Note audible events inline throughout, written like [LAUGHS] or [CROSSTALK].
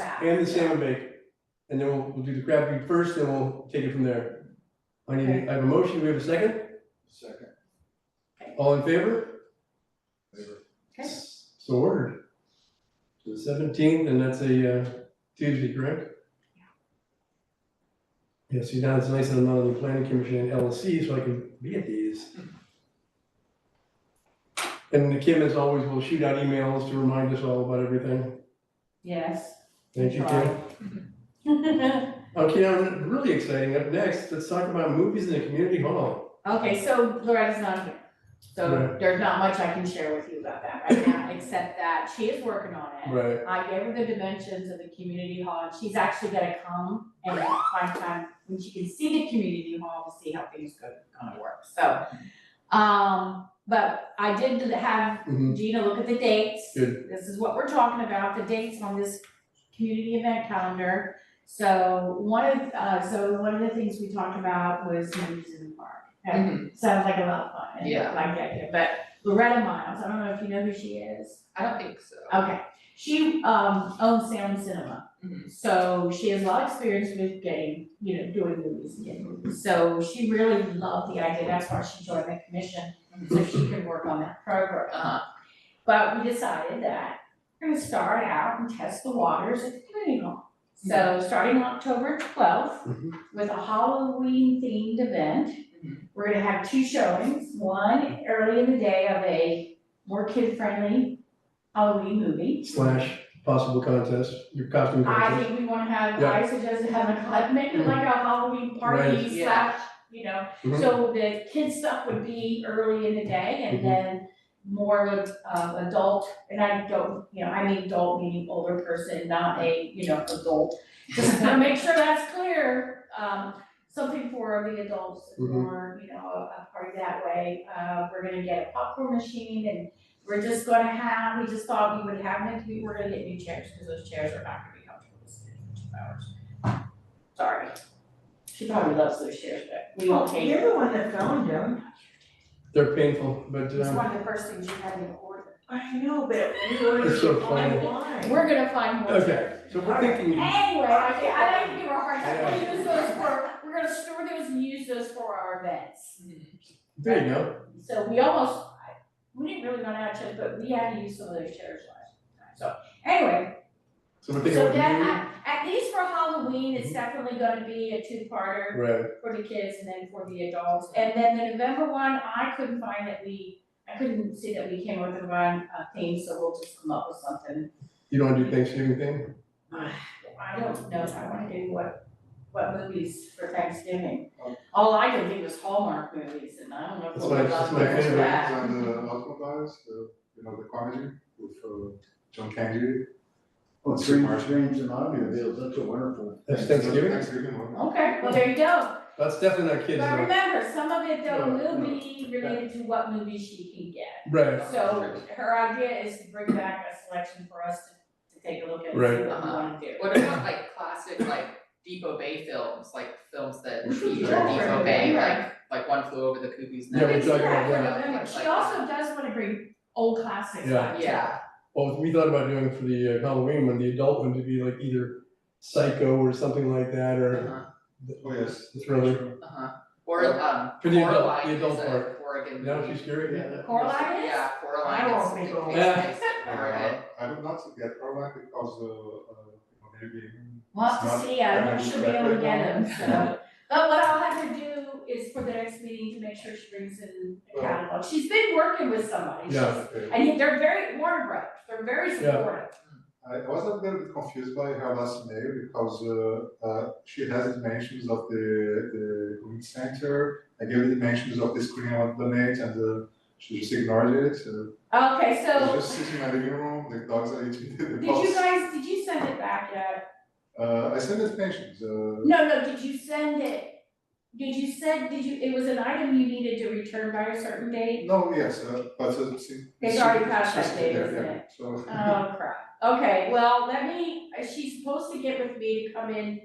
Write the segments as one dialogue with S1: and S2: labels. S1: and the salmon bake. And then we'll, we'll do the crab feed first, then we'll take it from there. I need, a- I have a motion, we have a second,
S2: Second.
S1: all in favor?
S2: Favor.
S3: Okay.
S1: So ordered. So the seventeenth, and that's a uh, Tuesday, correct? Yeah, see, now it's nice that I'm not on the planning commission and LLC, so I can be at these. And Kim, as always, will shoot out emails to remind us all about everything.
S3: Yes.
S1: Thank you, Kim. Okay, I'm really exciting. Up next, let's talk about movies in the community hall.
S3: [LAUGHS] Okay, so Loretta's not here, so
S1: Right.
S3: there's not much I can share with you about that right now, except that she is working on it.
S1: Right.
S3: I gave her the dimensions of the community hall, and she's actually gonna come and find time when she can see the community hall to see how things go, gonna work, so. Um, but I did have
S1: Mhm.
S3: Gina look at the dates.
S1: Good.
S3: This is what we're talking about, the dates on this community event calendar. So one of, uh, so one of the things we talked about was movies in the park. That Sounds like a lot of fun, and
S4: Mm-hmm. Yeah.
S3: like the idea, but Loretta Miles, I don't know if you know who she is.
S4: I don't think so.
S3: Okay, she um owns Sound Cinema.
S4: Mhm.
S3: So she has a lot of experience with getting, you know, doing movies and getting movies. So she really loved the idea, that's why she joined the commission, so she could work on that program.
S4: Uh-huh.
S3: But we decided that we're gonna start out and test the waters at the community hall. So starting October twelfth,
S1: Mhm.
S3: with a Halloween themed event,
S4: Mhm.
S3: we're gonna have two showings. One early in the day of a more kid friendly Halloween movie.
S1: Slash possible contest, your costume
S3: I
S1: contest.
S3: think we wanna have,
S1: Yeah.
S3: I suggest to have a, like, make it like a Halloween
S1: Right.
S3: party
S4: Yeah.
S3: slash, you know,
S1: Mhm.
S3: so the kids stuff would be early in the day
S1: Mhm.
S3: and then more of, uh, adult, and I don't, you know, I mean adult meaning older person, not a, you know, adult. [LAUGHS] Just to make sure that's clear, um, something for the adults
S1: Mhm.
S3: or, you know, a a party that way. Uh, we're gonna get a popcorn machine and we're just gonna have, we just thought we would have it, we were gonna get new chairs, cause those chairs are not gonna be comfortable to sit in for two hours. Sorry. She probably loves those chairs, but we won't take
S5: You're the one that found him.
S1: They're painful, but
S3: It's
S1: um,
S3: one of the first things you had in order.
S5: I know, but we ordered
S1: It's so
S5: it
S1: funny.
S5: online.
S3: We're gonna find more
S1: Okay.
S3: chairs.
S1: so we're thinking,
S3: Anyway, I I like to give her a hard time, we use those for, we're gonna store those and use those for our events.
S1: there you go.
S3: So we almost, I- we didn't really run out of chairs, but we had to use some of those chairs last time, so anyway.
S1: So we're Mm-hmm. thinking
S3: So
S1: about
S3: that, at, at least for Halloween, it's definitely gonna be a two-parter
S1: movie. Right,
S3: for the kids and then for the adults. And then the November one, I couldn't find that we, I couldn't see that we came up with a run, uh, theme, so we'll just come up with something.
S1: you don't wanna do Thanksgiving thing?
S3: I don't know if I wanna do what, what movies for Thanksgiving. All I could think was Hallmark movies, and I don't know if we'll
S1: Um, That's my-
S3: love
S1: that's my
S3: those for
S1: favorite.
S3: that.
S6: On the Aquabats, the, you know, the quantity with, uh, John Candy.
S7: Well, Dreams, Oh, Dreams and Automobiles, that's a wonderful.
S1: That's Thanksgiving?
S6: Thanksgiving one.
S3: Okay, well, there you go.
S1: That's definitely not kids
S3: But
S1: though.
S3: remember, some of it though
S7: No,
S3: will
S7: no.
S3: be related to what movies she can get.
S1: Right,
S3: So her idea is to bring back a selection for us to, to take a look at and see what we
S1: Right.
S3: wanna do.
S4: What about like classic like Depot Bay films, like films that
S6: We should
S4: feature
S6: do that.
S4: Depot Bay,
S3: Right.
S4: like like One Flew Over the Cuckoo's
S1: Yeah,
S4: Nest?
S1: we're
S3: We can do
S1: talking
S3: that
S1: about
S3: for
S4: that.
S3: November. She
S4: Like-
S3: also does wanna bring old classics
S1: Yeah.
S3: back.
S4: Yeah,
S1: well, we thought about doing for the uh, Halloween one, the adult one to be like either psycho or something like that, or
S4: uh-huh,
S6: Oh, yes.
S1: the thriller.
S4: uh-huh. Or um,
S1: For the adult,
S4: Coraline
S1: the adult
S4: is
S1: part,
S4: a Oregon
S1: that would be
S4: movie.
S1: scary.
S3: Coraline is?
S4: Yeah,
S5: I won't
S4: Coraline
S5: be
S4: is,
S5: going.
S4: it's nice,
S6: Uh,
S4: Oregon.
S6: I would not get Caroline because, uh, uh, you know, maybe.
S3: We'll have
S6: it's
S3: to
S6: not-
S3: see, I don't
S6: not
S3: know if she'll be able to get them,
S6: exactly
S3: so. But what I'll have her do is for the next meeting to make sure she brings in a
S6: Well-
S3: catalog. She's been working with somebody, she's,
S6: Okay.
S3: and they're very, Warner Brothers, they're very supportive.
S6: I I was a little bit confused by her last name because, uh, uh, she has dimensions of the, the Green Center. I gave the dimensions of the screen I want to donate and, uh, she just ignored it. Uh,
S3: Okay,
S6: It's
S3: so,
S6: just sitting in my living room, the dogs are eating [LAUGHS] the
S3: did
S6: box.
S3: you guys, did you send it back yet?
S6: Uh, I sent it mentions, uh,
S3: No, no, did you send it? Did you send, did you, it was an item you needed to return by a certain date?
S6: No, yes, uh, but uh, see.
S3: It's
S6: see-
S3: already past that
S6: see-
S3: date,
S6: yeah,
S3: isn't
S6: yeah,
S3: it?
S6: So,
S3: Oh crap, okay, well, let me, uh, she's supposed to get with me to come in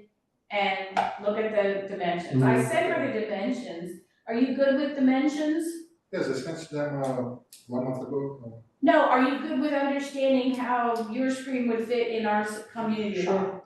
S3: and look at the dimensions, I sent her the dimensions, are you good with dimensions?
S6: yes, I sent them, uh, one month ago, uh,
S3: No, are you good with understanding how your screen would fit in our s- community?
S6: Sure.